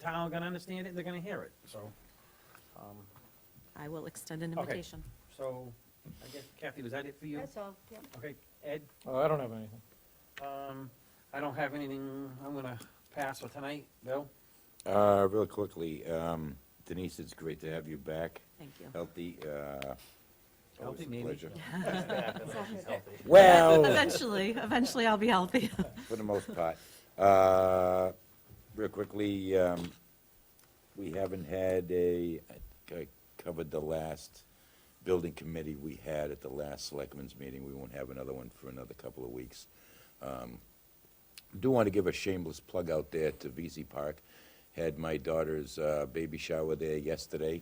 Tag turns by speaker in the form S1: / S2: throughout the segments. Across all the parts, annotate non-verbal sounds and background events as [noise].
S1: town gonna understand it, they're gonna hear it, so. um,
S2: I will extend an
S1: Okay.
S2: invitation.
S1: So, I guess Kathy, was that it for you?
S3: That's all, yep.
S1: Okay, Ed,
S4: Uh, I don't have anything.
S1: um, I don't have anything, I'm gonna pass for tonight, Bill?
S5: Uh, real quickly, um, Denise, it's great to have you back,
S2: Thank you.
S5: healthy, uh, always
S1: Healthy,
S5: a
S1: maybe. [laughs]
S5: pleasure.
S6: Healthy.
S1: oh.
S5: Well,
S2: Eventually, eventually I'll be healthy.
S5: for the most part. Uh, real quickly, um, we haven't had a, I think I covered the last building committee we had at the last selectmen's meeting. We won't have another one for another couple of weeks. Um, do want to give a shameless plug out there to VZ Park. Had my daughter's uh, baby shower there yesterday.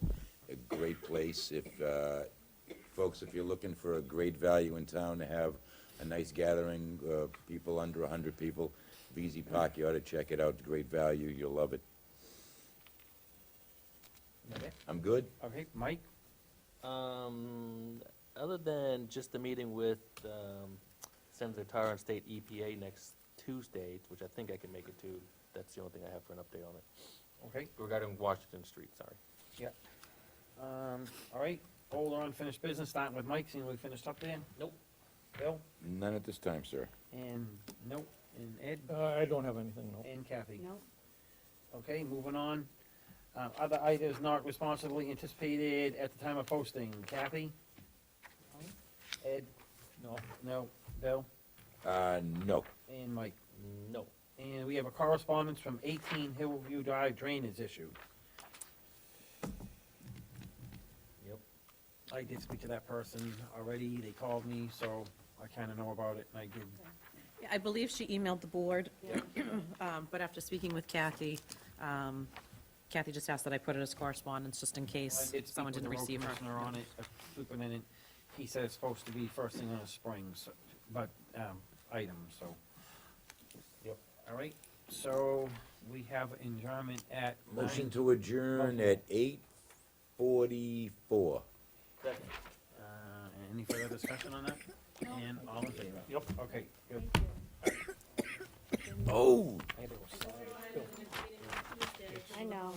S5: A great place. If uh, folks, if you're looking for a great value in town to have a nice gathering, uh, people under 100 people, VZ Park, you ought to check it out. Great value. You'll love it.
S1: Okay.
S5: I'm good.
S1: Okay, Mike?
S6: Um, other than just the meeting with, um, Senator Tar and State EPA next Tuesday, which I think I can make it to, that's the only thing I have for an update on it,
S1: Okay,
S6: regarding Washington Street, sorry.
S1: yeah. Um, all right, hold on, finished business, starting with Mike, seeing we finished up there?
S6: Nope.
S1: Bill?
S5: None at this time, sir.
S1: And, nope, and Ed,
S4: Uh, I don't have anything, no.
S1: and Kathy?
S3: No,
S1: Okay, moving on. Uh, Other items not responsibly anticipated at the time of posting. Kathy? Ed?
S4: No.
S1: No. Bill?
S5: Uh, no.
S1: And Mike?
S6: No.
S1: And we have a correspondence from 18 Hillview Drive drainage issue.
S6: Yep.
S1: I did speak to that person already. They called me, so I kind of know about it, and I did.
S2: [laughs] I believe she emailed the board, [clears throat] um, but after speaking with Kathy, um, Kathy just asked that I put it as correspondence, just in
S1: I
S2: case
S1: did speak
S2: someone
S1: with the
S2: didn't
S1: road
S2: receive her.
S1: commissioner on it, uh, superintendent. He said it's supposed to be first thing on the spring, so, but, um, item, so.
S6: Yep.
S1: All right, so we have adjournment at
S5: Motion
S1: nine.
S5: to adjourn at 8:44.
S6: Second.
S1: Uh, any further discussion on that? And all in favor?
S6: Yep.
S1: Okay, good.
S3: thank you.
S5: Oh,
S3: I know.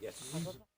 S5: yes.